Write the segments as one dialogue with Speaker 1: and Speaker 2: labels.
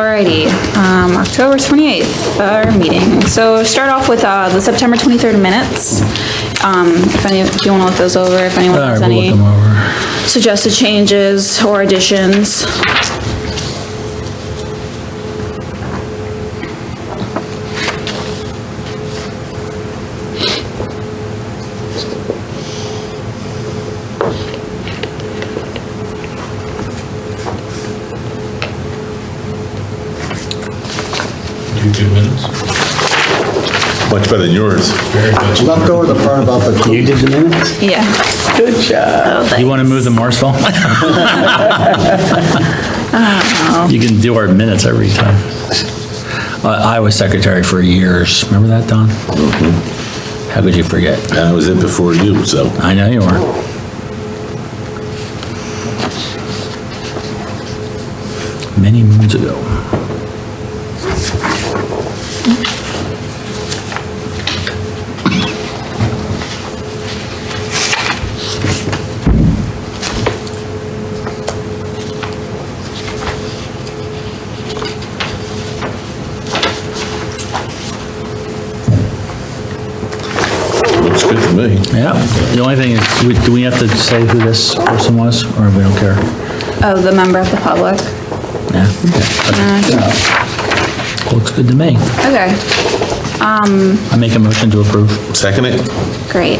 Speaker 1: Alrighty, um, October 28th, our meeting. So start off with, uh, the September 23rd minutes. Um, if any, if you wanna look those over, if anyone
Speaker 2: All
Speaker 1: has
Speaker 2: right, we'll
Speaker 1: any
Speaker 2: look them over.
Speaker 1: suggested changes or additions.
Speaker 3: You two minutes?
Speaker 4: Much better than yours.
Speaker 3: Very much.
Speaker 5: Left over the part about the. You did the minutes?
Speaker 1: Yeah.
Speaker 5: Good job.
Speaker 2: You want to move the Morrisville? You can do our minutes every time. Uh, I was secretary for years. Remember that, Don? How could you forget?
Speaker 4: I was in before you, so.
Speaker 2: I know you were. Many moons ago.
Speaker 4: Looks good to me.
Speaker 2: Yeah. The only thing is, we- do we have to say who this person was, or we don't care?
Speaker 1: Oh, the member of the public.
Speaker 2: Yeah. Okay. Looks good to me.
Speaker 1: Okay,
Speaker 2: I make a motion to approve.
Speaker 4: Second it?
Speaker 1: great.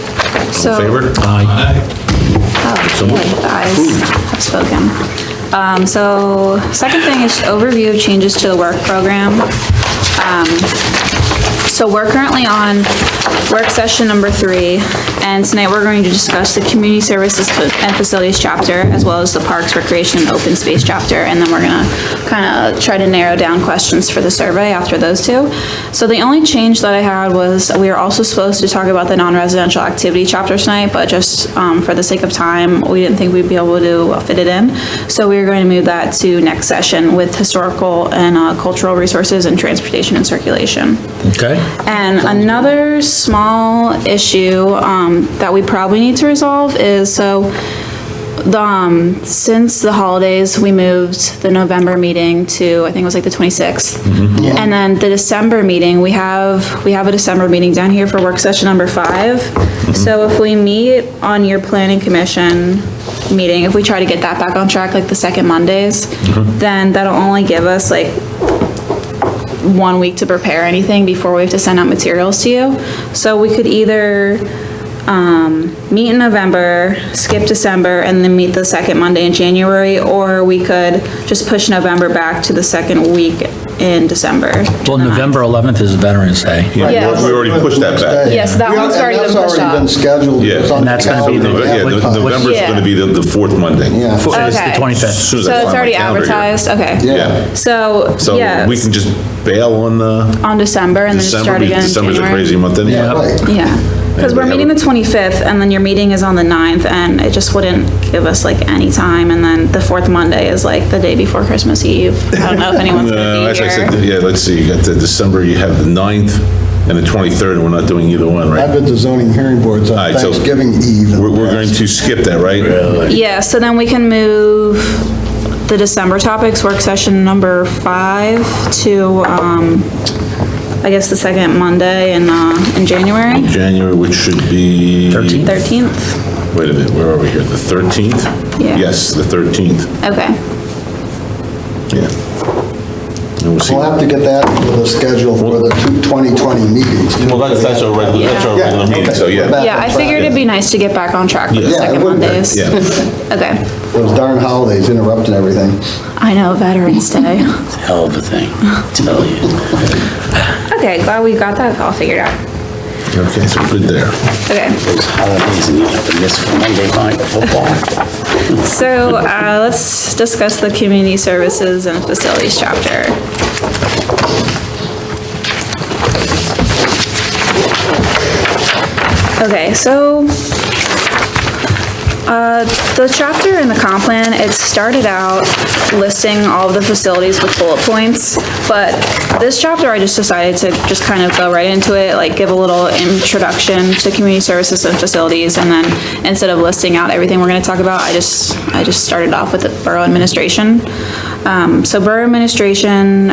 Speaker 1: So.
Speaker 4: All in favor?
Speaker 2: Aye.
Speaker 1: Okay, the ayes have spoken. Um, so, second thing is overview of changes to the work program. Um, So we're currently on work session number three, and tonight we're going to discuss the community services and facilities chapter, as well as the parks, recreation, and open space chapter, and then we're gonna kinda try to narrow down questions for the survey after those two. So the only change that I had was, we were also supposed to talk about the non-residential activity chapter tonight, but just, um, for the sake of time, we didn't think we'd be able to fit it in. So we are going to move that to next session with historical and uh, cultural resources and transportation and circulation.
Speaker 2: Okay.
Speaker 1: And another small issue um, that we probably need to resolve is, so, the, um, since the holidays, we moved the November meeting to, I think it was like the 26th. And then the December meeting, we have, we have a December meeting down here for work session number five. So if we meet on your planning commission meeting, if we try to get that back on track, like the second Mondays, then that'll only give us like one week to prepare anything before we have to send out materials to you. So we could either um, meet in November, skip December, and then meet the second Monday in January, or we could just push November back to the second week in December. Uh-huh.
Speaker 2: Well, November 11th is Veterans Day.
Speaker 1: Yes.
Speaker 4: We already pushed that back.
Speaker 1: Yes, that
Speaker 5: We are-
Speaker 1: one's already
Speaker 5: and
Speaker 1: been pushed
Speaker 5: That's already been
Speaker 1: off.
Speaker 5: scheduled.
Speaker 4: Yeah.
Speaker 5: It's on
Speaker 4: And
Speaker 2: that's gonna be
Speaker 5: the
Speaker 2: the-
Speaker 5: calendar.
Speaker 4: Yeah, the-
Speaker 2: What's-
Speaker 4: November's
Speaker 1: Yeah.
Speaker 4: gonna be the, the fourth Monday.
Speaker 5: Yeah.
Speaker 2: So It's the
Speaker 1: Okay.
Speaker 2: 25th.
Speaker 1: So
Speaker 4: Soon as
Speaker 1: it's
Speaker 4: I find my
Speaker 1: already
Speaker 4: calendar here.
Speaker 1: advertised,
Speaker 5: Yeah.
Speaker 1: okay.
Speaker 4: Yeah,
Speaker 1: So,
Speaker 4: so we
Speaker 1: yes,
Speaker 4: can just bail on the
Speaker 1: on December and then just
Speaker 4: December,
Speaker 1: start again in
Speaker 4: because December's a
Speaker 1: January.
Speaker 4: crazy month
Speaker 2: Yeah.
Speaker 4: anyway.
Speaker 5: Right.
Speaker 1: Yeah, because we're
Speaker 4: Anybody have
Speaker 1: meeting the
Speaker 4: a-
Speaker 1: 25th, and then your meeting is on the 9th, and it just wouldn't give us like any time, and then the fourth Monday is like the day before Christmas Eve. I don't know if anyone's
Speaker 4: Uh,
Speaker 1: gonna
Speaker 4: as
Speaker 1: be
Speaker 4: I said,
Speaker 1: here.
Speaker 4: yeah, let's see, you got the December, you have the ninth and the twenty-third, and we're not doing either one,
Speaker 5: I've
Speaker 4: right?
Speaker 5: been to zoning hearing boards
Speaker 4: All
Speaker 5: on
Speaker 4: right, so-
Speaker 5: Thanksgiving Eve.
Speaker 4: We're, we're going to skip that, right?
Speaker 1: Yeah, so then we can move the December topics, work session number five to, um, I guess the second Monday in, uh, in January,
Speaker 4: January, which should be.
Speaker 2: 13th.
Speaker 1: 13th?
Speaker 4: Wait a minute, where are we here? The thirteenth?
Speaker 1: Yeah.
Speaker 4: Yes, the thirteenth,
Speaker 1: Okay,
Speaker 4: yeah. And we'll see.
Speaker 5: We'll have to get that into the schedule for the two- 2020 meetings.
Speaker 4: Well, that's, that's our regular, that's our regular meeting, so yeah.
Speaker 1: yeah, I figured it'd be nice to get back on track with the
Speaker 4: Yeah, it
Speaker 1: second
Speaker 5: would be,
Speaker 1: Mondays.
Speaker 4: Yeah,
Speaker 1: Okay,
Speaker 5: Those darn holidays interrupted everything.
Speaker 1: I know, Veterans Day.
Speaker 6: hell of a thing, tell you.
Speaker 1: Okay, glad we got that all figured out.
Speaker 4: okay, so good there.
Speaker 1: Okay,
Speaker 6: Those holidays and you have to miss Monday night football.
Speaker 1: so uh, let's discuss the community services and facilities chapter. Okay, so uh, the chapter in the comp plan, it started out listing all of the facilities with bullet points, but this chapter, I just decided to just kind of go right into it, like give a little introduction to community services and facilities, and then instead of listing out everything we're gonna talk about, I just, I just started off with the borough administration. Um, So Borough Administration